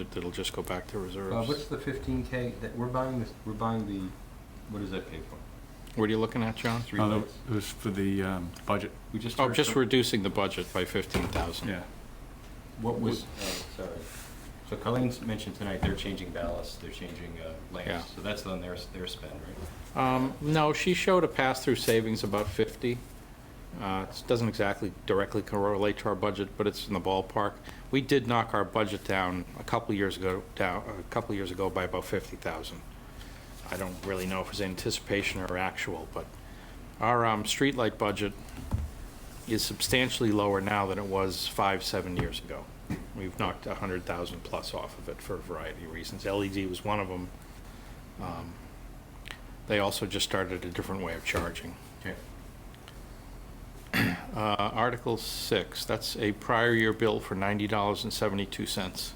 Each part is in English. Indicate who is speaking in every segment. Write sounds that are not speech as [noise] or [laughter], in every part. Speaker 1: It- It'll just go back to
Speaker 2: Uh, what's
Speaker 1: reserves.
Speaker 2: the fifteen K that, we're buying this, we're buying the, what does that pay for?
Speaker 1: What are you looking at, John?
Speaker 2: Three
Speaker 3: Oh, that
Speaker 2: lights?
Speaker 3: was for the um, budget,
Speaker 2: We just.
Speaker 1: Uh, Oh,
Speaker 2: heard
Speaker 1: just
Speaker 2: from-
Speaker 1: reducing the budget by 15,000.
Speaker 3: [laughs] yeah.
Speaker 2: What was, oh, sorry. So Colleen's mentioned tonight, they're changing ballast, they're changing, uh,
Speaker 1: Yeah.
Speaker 2: lamps, so that's on their, their spend, right?
Speaker 1: Um, No, she showed a pass-through savings about 50. Uh, It doesn't exactly directly correlate to our budget, but it's in the ballpark. We did knock our budget down a couple years ago, down, a couple years ago by about 50,000. I don't really know if it was anticipation or actual, but our um, streetlight budget is substantially lower now than it was five, seven years ago. We've knocked 100,000 plus off of it for a variety of reasons. LED was one of them. Um, They also just started a different way of charging.
Speaker 2: Okay.
Speaker 1: Uh, Article 6, that's a prior year bill for $90.72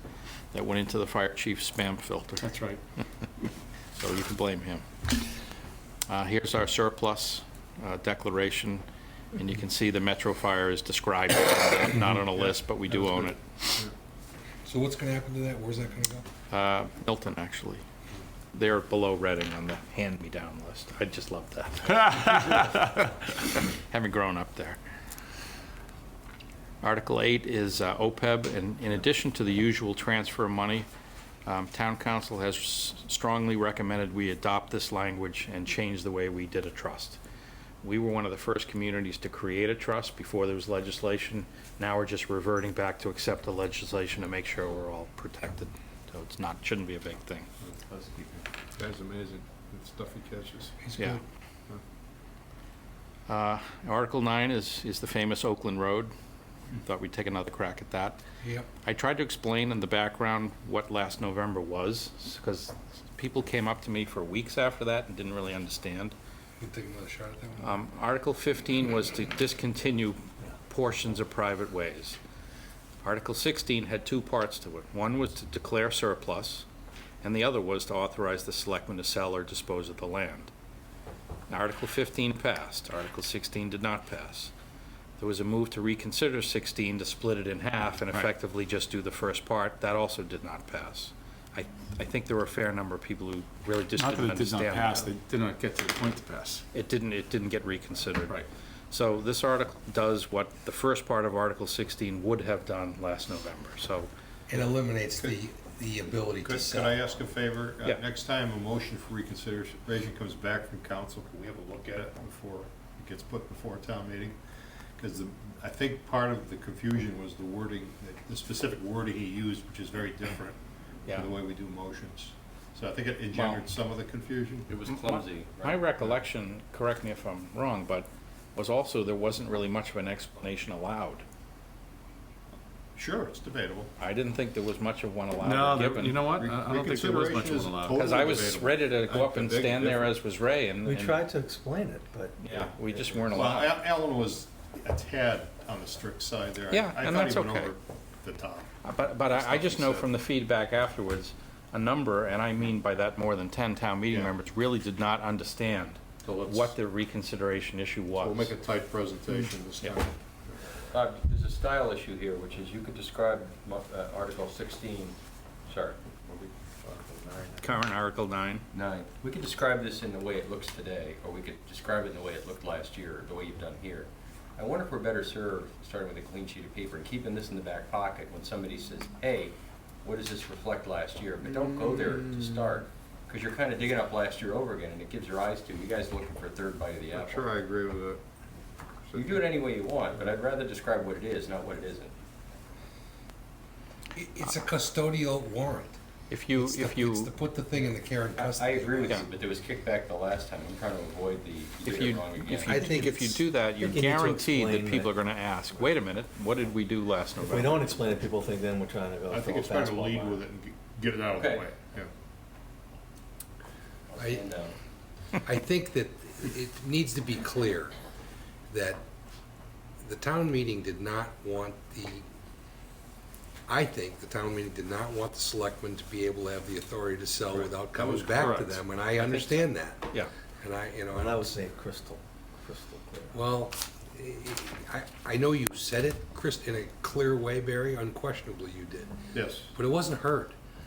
Speaker 1: that went into the fire chief's spam filter,
Speaker 3: That's right.
Speaker 1: [laughs] so you can blame him. Uh, Here's our surplus uh, declaration, and you can see the Metro Fire is described,
Speaker 3: [coughs]
Speaker 1: not on a list, but we do own it.
Speaker 4: So what's gonna happen to that? Where's that gonna
Speaker 1: Uh, Milton, actually. They're below Reading on the hand-me-down list. I just love
Speaker 3: [laughs]
Speaker 1: that. Haven't grown up there. Article 8 is uh, OPEB, and in addition to the usual transfer of money, um, Town Council has s- strongly recommended we adopt this language and change the way we did a trust. We were one of the first communities to create a trust before there was legislation. Now we're just reverting back to accept the legislation to make sure we're all protected. So it's not, shouldn't be a big thing.
Speaker 5: That's amazing, the stuff he catches.
Speaker 4: go?
Speaker 1: Yeah. Uh, Article 9 is, is the famous Oakland Road. Thought we'd take another crack at that.
Speaker 4: Yep,
Speaker 1: I tried to explain in the background what last November was, because people came up to me for weeks after that and didn't really understand.
Speaker 4: we'll take another shot at that one.
Speaker 1: Um, Article 15 was to discontinue portions of private ways. Article 16 had two parts to it. One was to declare surplus, and the other was to authorize the selectmen to sell or dispose of the land. Article 15 passed. Article 16 did not pass. There was a move to reconsider 16, to split it in half and effectively just do the first part. That also did not pass. I, I think there were a fair number of people who really just
Speaker 3: Not that
Speaker 1: didn't
Speaker 3: it did
Speaker 1: understand
Speaker 3: not
Speaker 1: that.
Speaker 3: pass, they did not get to the point to pass.
Speaker 1: It didn't, it didn't get reconsidered. So this article does what the first part of Article 16 would have done last November. So
Speaker 4: It eliminates the, the ability to
Speaker 5: Could, could I
Speaker 4: sell.
Speaker 5: ask a favor? Uh,
Speaker 1: Yeah.
Speaker 5: Next time a motion for reconsideration comes back from council, can we have a look at it before it gets put before a town meeting? Because I think part of the confusion was the wording, that- the specific wording he used, which is very different
Speaker 1: Yeah.
Speaker 5: from the way we do motions. So I think it engendered some of the confusion.
Speaker 2: It was
Speaker 1: Mm,
Speaker 2: clumsy,
Speaker 1: my recollection, correct me if I'm wrong, but was also there wasn't really much of an explanation allowed.
Speaker 5: Sure, it's debatable.
Speaker 1: I didn't think there was much of one
Speaker 3: No,
Speaker 1: allowed or
Speaker 3: there- you know
Speaker 1: given.
Speaker 3: what, I I don't think there was much
Speaker 5: Reconsideration
Speaker 3: one
Speaker 5: is
Speaker 3: allowed.
Speaker 5: total-
Speaker 1: Because I was
Speaker 5: Totally
Speaker 1: ready
Speaker 5: debatable.
Speaker 1: to go
Speaker 5: I
Speaker 1: up and
Speaker 5: beg to
Speaker 1: stand there
Speaker 5: differ.
Speaker 1: as was Ray and.
Speaker 6: We
Speaker 1: and-
Speaker 6: tried to explain it, but.
Speaker 1: Yeah, we just weren't
Speaker 5: Well,
Speaker 1: allowed.
Speaker 5: Al- Alan was a tad on the strict side there. I-
Speaker 1: Yeah, and that's
Speaker 5: I thought
Speaker 1: okay.
Speaker 5: he went over the top.
Speaker 1: But, but I I just know
Speaker 5: Stuff he said.
Speaker 1: from the feedback afterwards, a number, and I mean by that more than 10 town meeting
Speaker 5: Yeah.
Speaker 1: members, really did not understand
Speaker 5: So let's-
Speaker 1: what the reconsideration issue was.
Speaker 5: We'll make a tight presentation this
Speaker 1: Yeah.
Speaker 5: time.
Speaker 2: Bob, Uh, there's a style issue here, which is you could describe mo- uh, Article sixteen, sorry, what we- Article nine.
Speaker 1: Current Article 9.
Speaker 2: Nine. We could describe this in the way it looks today, or we could describe it in the way it looked last year, or the way you've done here. I wonder if we're better served, starting with a clean sheet of paper, and keeping this in the back pocket when somebody says, hey, what does this reflect last year? But don't go there to start, because you're kind of digging up last year over again, and it gives your eyes to, you guys looking for a third bite of the
Speaker 5: I'm sure
Speaker 2: apple.
Speaker 5: I agree with it.
Speaker 2: You do it any way you want, but I'd rather describe what it is, not what it isn't.
Speaker 4: It- It's a custodial warrant.
Speaker 1: If you,
Speaker 4: It's to-
Speaker 1: if
Speaker 4: It's to
Speaker 1: you,
Speaker 4: put the thing in the care and
Speaker 2: I- I
Speaker 4: custody.
Speaker 2: agree with
Speaker 1: Yeah.
Speaker 2: you, but there was kickback the last time, I'm trying to avoid the, you
Speaker 1: if
Speaker 2: did it
Speaker 1: you,
Speaker 2: wrong again.
Speaker 1: if
Speaker 6: I
Speaker 1: you,
Speaker 6: think
Speaker 1: if you
Speaker 6: it's-
Speaker 1: do that,
Speaker 6: I
Speaker 1: you're
Speaker 6: think you need to
Speaker 1: guaranteed that
Speaker 6: explain
Speaker 1: people
Speaker 6: that.
Speaker 1: are gonna ask, wait a minute, what did we do last
Speaker 6: If we
Speaker 1: November?
Speaker 6: don't explain it, people think then we're trying to go.
Speaker 5: I think it's better to lead with it and g- get it out of the
Speaker 2: Okay.
Speaker 5: way, yeah.
Speaker 2: I'll stand down.
Speaker 4: I think that it needs to be clear that the town meeting did not want the, I think the town meeting did not want the selectmen to be able to have the authority to sell without coming back to
Speaker 1: correct.
Speaker 4: them, and I understand that.
Speaker 1: Yeah,
Speaker 4: And I, you know,
Speaker 6: And
Speaker 4: and
Speaker 6: I would say crystal, crystal clear.
Speaker 4: Well, I, I know you said it, Chris, in a clear way, Barry, unquestionably you did,
Speaker 5: Yes,
Speaker 4: but it wasn't heard.